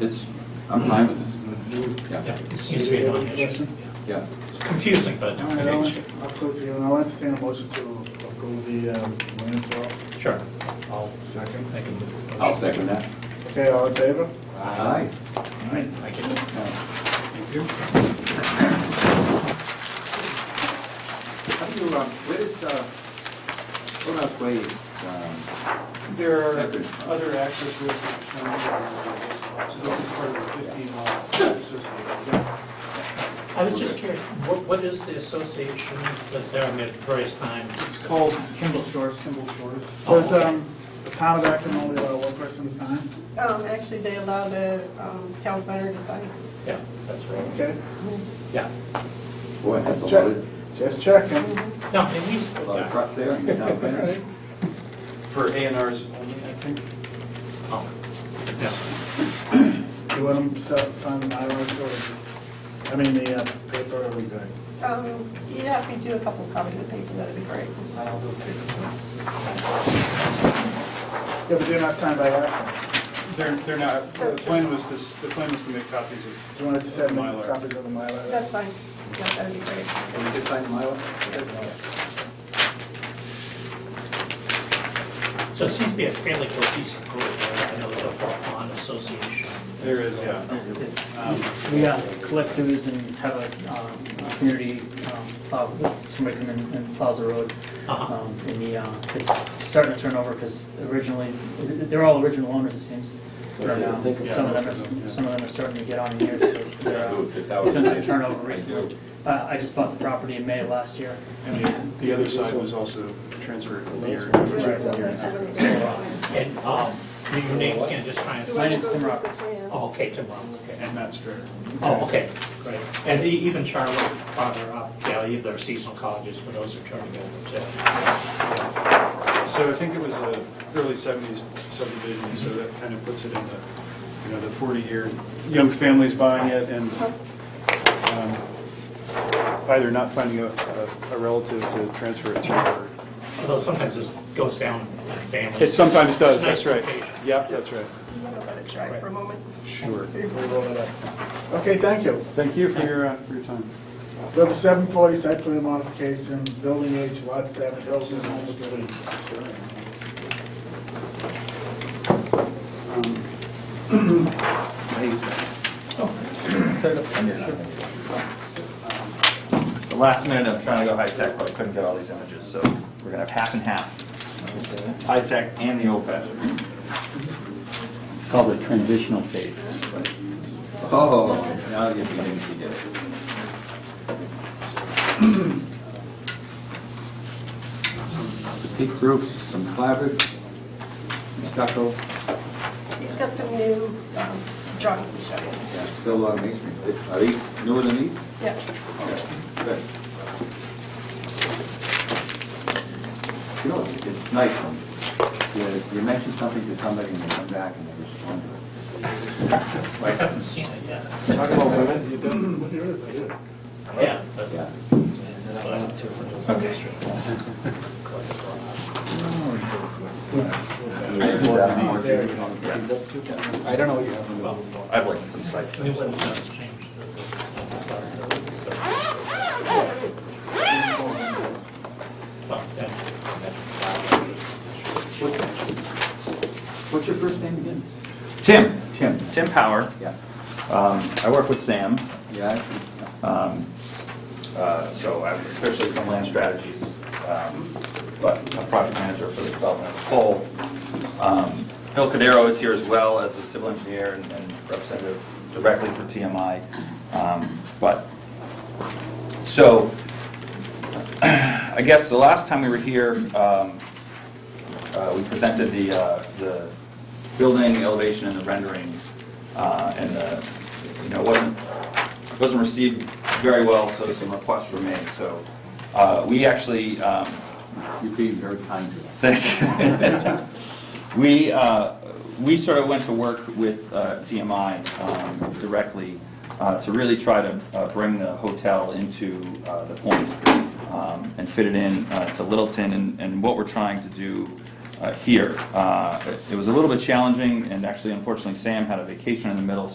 It's, I'm fine with this. Yeah, It seems to be a non-issue. yeah. yeah. It's confusing, but All right, an issue. I'll, I'll close the, hearing. I'll entertain a motion to approve the um, land swap. Sure. I'll Second. make a move. I'll second that. Okay, all in favor? Aye. All right. Thank you. Thank you. How do you, um, where is, uh, what else way, um, There are other access routes that the town has, uh, so this is part of the 15 mile association. I was just curious, what, what is the association that's there at various times? It's called Kimball Shores. Kimball Shores. Does, um, the town of Acton only allow one person to sign? Um, actually, they allow the, um, town planner to sign. Yeah, that's right. Okay, Yeah. boy, that's a Check. loaded, just checking. No, it needs, a lot of yeah. trucks there. and you're not finished. For A and Rs only, I think. Oh. Yeah. You want them to si- sign the bylaws or just, I mean, the uh, paper, are we good? Um, yeah, if you do a couple copies of the paper, that'd be great. Uh, I'll go take them. Yeah, but they're not signed by Acton. They're, they're not, the plan was to, s- the plan was to make copies Do you want to just have of them Mylar. copies of the Mylar? That's fine. Yeah, that'd be great. Can we just sign the Mylar? So it seems to be a fairly cohesive group. right? I know there's a Fort Pond Association. There is, yeah. Um, We uh, collect dues and have a um, a community, um, plow- somebody come in and plows the road. Uh-huh. Um, And the, uh, it's starting to turn over because originally, they're all original owners, it seems. So I don't think And, it's- uh, Some of them, are- some of them are starting to get on in years, so they're, uh, Ooh, this hour. Done some turnover I do. recently. uh, I just bought the property in May of last year. And the- the other side was also transferred here. And, um, your name again, just trying to, My name's Tim Roberts. oh, okay, Tim Robbins, okay. And Matt Strader. Oh, okay, great. And e- even Charlotte, farther up, yeah, you have their seasonal colleges, but those are turning over too. So I think it was a early 70s subdivision, so that kind of puts it in the, you know, the 40-year, young families buying it and um, either not finding a- a a relative to transfer it through. or- Although sometimes this goes down in families. It sometimes does, It's nice that's right. location. Yep, that's right. I'm gonna let it dry for a moment. Sure. We'll roll it up. Okay, thank you. Thank you for your, uh, for your time. We have a seven forty site plan modification, building H, lot seven, Hilton Home Suites. The last minute, I'm trying to go high-tech, but I couldn't get all these images, so we're gonna have half and half. High-tech and the old-fashioned. It's called a transitional phase. Oh, now you're beginning to get it. Peak roofs, some clapboard, stucco, He's got some new, um, drawings to show you. yeah, still on masonry. Are these newer than these? Yeah. Good. You know, it's- it's nice when you- you mention something to somebody and they come back and they respond to it. I haven't seen it yet. Talk about women, you don't, what year is it? Yeah. but- Yeah. but I don't do it. I don't know what you have. I've looked at some sites. New ones don't change the- Well, yeah. What's your first name again? Tim, Tim. Tim Power. Yeah. Um, I work with Sam, Yeah. I see. um, uh, so I'm officially from Land Strategies, um, but I'm project manager for the development of the whole. Um, Phil Cadero is here as well as the civil engineer and and representative directly for TMI. Um, But, so, I guess the last time we were here, um, uh, we presented the, uh, the building, the elevation, and the rendering, uh, and the, you know, it wasn't, it wasn't received very well, so some requests were made, so, uh, we actually, um, You're being very kind to us. Thank you. We, uh, we sort of went to work with uh, TMI um, directly uh, to really try to uh, bring the hotel into uh, the point um, and fit it in uh, to Littleton. And- And what we're trying to do uh, here. Uh, it- It was a little bit challenging, and actually unfortunately Sam had a vacation in the middle,